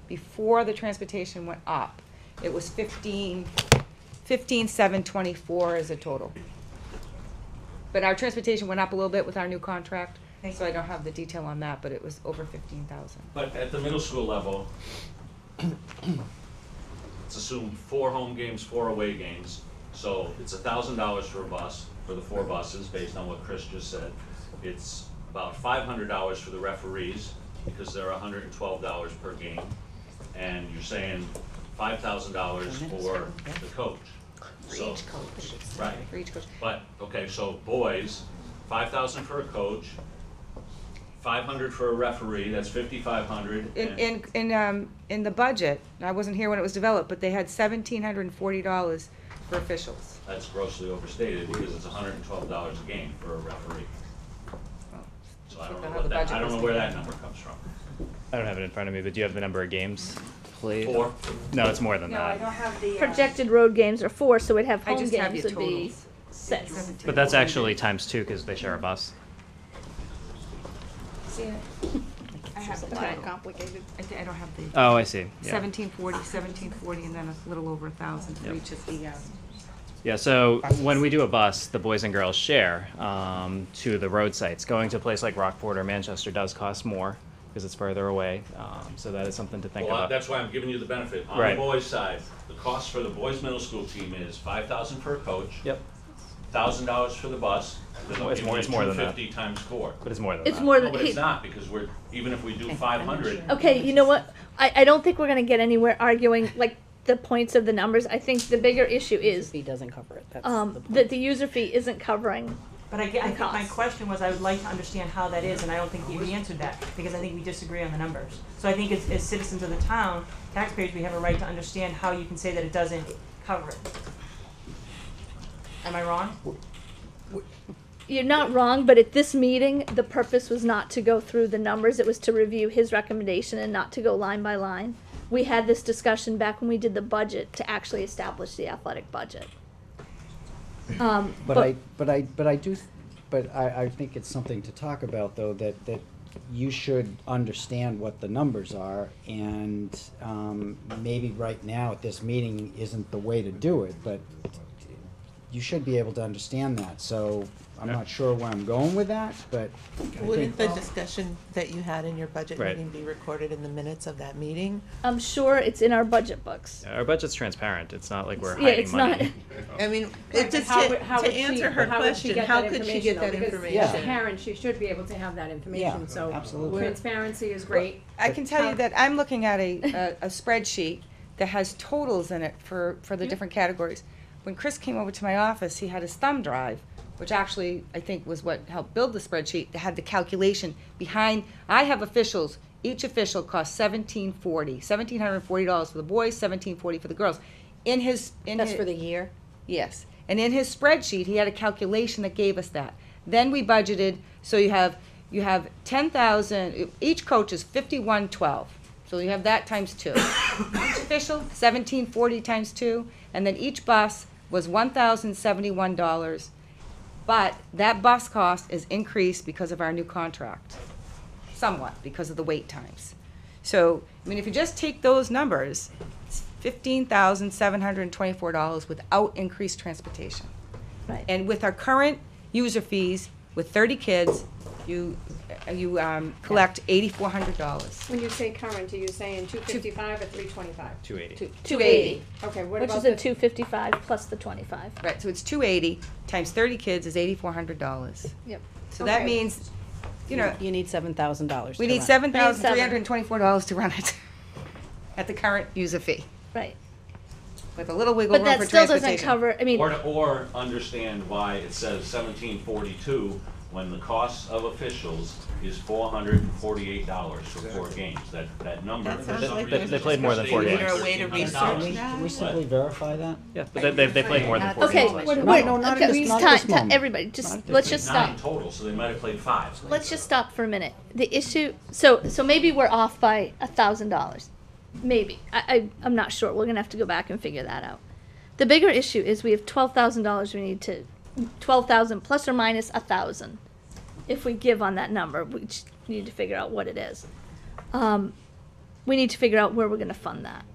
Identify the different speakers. Speaker 1: before the transportation went up, it was fifteen, fifteen, seven twenty-four as a total. But our transportation went up a little bit with our new contract, so I don't have the detail on that, but it was over fifteen thousand.
Speaker 2: But at the middle school level, let's assume four home games, four away games. So it's a thousand dollars for a bus, for the four buses, based on what Chris just said. It's about five hundred dollars for the referees, because they're hundred and twelve dollars per game. And you're saying five thousand dollars for the coach. So- Right.
Speaker 1: For each coach.
Speaker 2: But, okay, so boys, five thousand for a coach, five hundred for a referee, that's fifty-five hundred.
Speaker 1: In, in, in, um, in the budget, and I wasn't here when it was developed, but they had seventeen hundred and forty dollars for officials.
Speaker 2: That's grossly overstated because it's hundred and twelve dollars a game for a referee. So I don't know
Speaker 1: How
Speaker 2: what
Speaker 1: the
Speaker 2: that,
Speaker 1: budget
Speaker 2: I don't
Speaker 1: was
Speaker 2: know where
Speaker 1: taken.
Speaker 2: that number comes from.
Speaker 3: I don't have it in front of me, but do you have the number of games played?
Speaker 2: Four,
Speaker 3: No, it's more than
Speaker 4: No, I
Speaker 3: that.
Speaker 4: don't have the. uh,
Speaker 5: Projected road games are four, so we'd have
Speaker 1: I
Speaker 5: home
Speaker 1: just have
Speaker 5: games
Speaker 1: your
Speaker 5: would be
Speaker 1: totals.
Speaker 5: six.
Speaker 3: But that's actually times two because they share a bus.
Speaker 4: see it. I have the title.
Speaker 5: complicated.
Speaker 1: I thi- I don't have the,
Speaker 3: Oh, I see. Yeah.
Speaker 1: seventeen forty, seventeen forty, and then a little over a thousand for
Speaker 3: Yep.
Speaker 1: each of the, uh,
Speaker 3: Yeah, so when we do a bus, the boys and girls share um, to the road sites. Going to a place like Rockport or Manchester does cost more because it's further away. Um, so that is something to think
Speaker 2: well, I-
Speaker 3: about.
Speaker 2: that's why I'm giving you the benefit. On the
Speaker 3: Right.
Speaker 2: boys' side, the cost for the boys' middle school team is five thousand per coach,
Speaker 3: Yep,
Speaker 2: thousand dollars for the bus. then they'll
Speaker 3: It's
Speaker 2: give
Speaker 3: more-
Speaker 2: you
Speaker 3: it's more than that.
Speaker 2: 250 times four.
Speaker 3: but it's more than
Speaker 5: It's
Speaker 3: that.
Speaker 5: more
Speaker 2: No,
Speaker 5: than,
Speaker 2: but it's
Speaker 5: he,
Speaker 2: not, because we're, even if we do five hundred,
Speaker 5: okay, you know what? I, I don't think we're gonna get anywhere arguing like the points of the numbers. I think the bigger issue is,
Speaker 6: fee doesn't cover it, that's the
Speaker 5: um,
Speaker 6: point.
Speaker 5: that the user fee isn't covering.
Speaker 4: But I, ge- I think my
Speaker 5: cost.
Speaker 4: question was, I would like to understand how that is, and I don't think that we answered that, because I think we disagree on the numbers. So I think as, as citizens of the town, taxpayers, we have a right to understand how you can say that it doesn't cover it. Am I wrong?
Speaker 5: You're not wrong, but at this meeting, the purpose was not to go through the numbers, it was to review his recommendation and not to go line by line. We had this discussion back when we did the budget to actually establish the athletic budget. Um,
Speaker 6: But I, but I, but I do, th- but I, I think it's something to talk about, though, that, that you should understand what the numbers are, and, um, maybe right now at this meeting isn't the way to do it, but you should be able to understand that, so I'm not sure where I'm going with that, but I think,
Speaker 7: Wouldn't the discussion that you had in your budget
Speaker 3: Right.
Speaker 7: meeting be recorded in the minutes of that meeting?
Speaker 5: I'm sure it's in our budget books.
Speaker 3: Our budget's transparent. It's not like we're
Speaker 5: Yeah,
Speaker 3: hiding
Speaker 5: it's
Speaker 3: money.
Speaker 5: not,
Speaker 7: I mean, it
Speaker 8: But
Speaker 7: just,
Speaker 8: how
Speaker 7: to
Speaker 8: would- how
Speaker 7: to
Speaker 8: would she-
Speaker 7: answer her
Speaker 8: but how would she
Speaker 7: question,
Speaker 8: get
Speaker 7: how
Speaker 8: that
Speaker 7: could she get
Speaker 8: though?
Speaker 7: that
Speaker 8: Because
Speaker 7: information?
Speaker 8: As a
Speaker 6: Yeah.
Speaker 8: parent, she should be able to have that information, so.
Speaker 6: absolutely.
Speaker 8: Transparency is great.
Speaker 1: I can tell you that I'm looking at a, a- a spreadsheet that has totals in it for, for the different categories. When Chris came over to my office, he had his thumb drive, which actually I think was what helped build the spreadsheet, that had the calculation behind, I have officials, each official costs seventeen forty, seventeen hundred and forty dollars for the boys, seventeen forty for the girls. In his, in his.
Speaker 6: That's for the year?
Speaker 1: Yes. And in his spreadsheet, he had a calculation that gave us that. Then we budgeted, so you have, you have ten thousand, each coach is fifty-one twelve. So you have that times two. Each official, seventeen forty times two, and then each bus was one thousand seventy-one dollars. But that bus cost is increased because of our new contract, somewhat because of the wait times. So, I mean, if you just take those numbers, it's fifteen thousand seven hundred and twenty-four dollars without increased transportation.
Speaker 5: Right.
Speaker 1: And with our current user fees, with thirty kids, you, you, um, collect eighty-four hundred dollars.
Speaker 8: When you say current, are you saying two fifty-five or three twenty-five?
Speaker 3: 280.
Speaker 1: Two eighty.
Speaker 8: Okay, what
Speaker 5: which
Speaker 8: about
Speaker 5: is
Speaker 8: the?
Speaker 5: a two fifty-five plus the twenty-five.
Speaker 1: Right, so it's two eighty times thirty kids is eighty-four hundred dollars.
Speaker 5: Yep.
Speaker 1: So that
Speaker 8: Okay.
Speaker 1: means, you know,
Speaker 6: You need seven thousand dollars
Speaker 1: we need seven thousand three hundred and twenty-four dollars to run it at the current user fee,
Speaker 5: Right,
Speaker 1: with a little wiggle
Speaker 5: but
Speaker 1: room for
Speaker 5: that still doesn't
Speaker 1: transportation.
Speaker 5: cover, I mean,
Speaker 2: Or, to- or understand why it says seventeen forty-two when the cost of officials is four hundred and forty-eight dollars for four games. That, that number.
Speaker 7: That
Speaker 2: for
Speaker 7: sounds
Speaker 2: some
Speaker 7: like
Speaker 2: reason,
Speaker 3: They- they
Speaker 2: is
Speaker 3: played more than four
Speaker 2: stated
Speaker 3: games.
Speaker 2: at
Speaker 7: Is there a way to
Speaker 2: $1,300.
Speaker 7: research that?
Speaker 6: Can we simply verify that?
Speaker 3: Yeah, but they, they, they played more than four
Speaker 5: okay,
Speaker 3: games. last
Speaker 5: what-
Speaker 3: year.
Speaker 6: No,
Speaker 5: wait,
Speaker 6: no, not at
Speaker 5: okay,
Speaker 6: this- not at
Speaker 5: time,
Speaker 6: this
Speaker 5: time,
Speaker 6: moment.
Speaker 5: everybody,
Speaker 6: Not at
Speaker 5: just,
Speaker 6: this
Speaker 5: let's
Speaker 2: Played
Speaker 5: just
Speaker 2: Nine
Speaker 5: stop.
Speaker 2: total, so they might have played five.
Speaker 5: Let's just stop for a minute. The issue, so, so maybe we're off by a thousand dollars. Maybe. I, I, I'm not sure. We're gonna have to go back and figure that out. The bigger issue is we have twelve thousand dollars we need to, twelve thousand plus or minus a thousand. If we give on that number, we just need to figure out what it is. Um, we need to figure out where we're gonna fund that.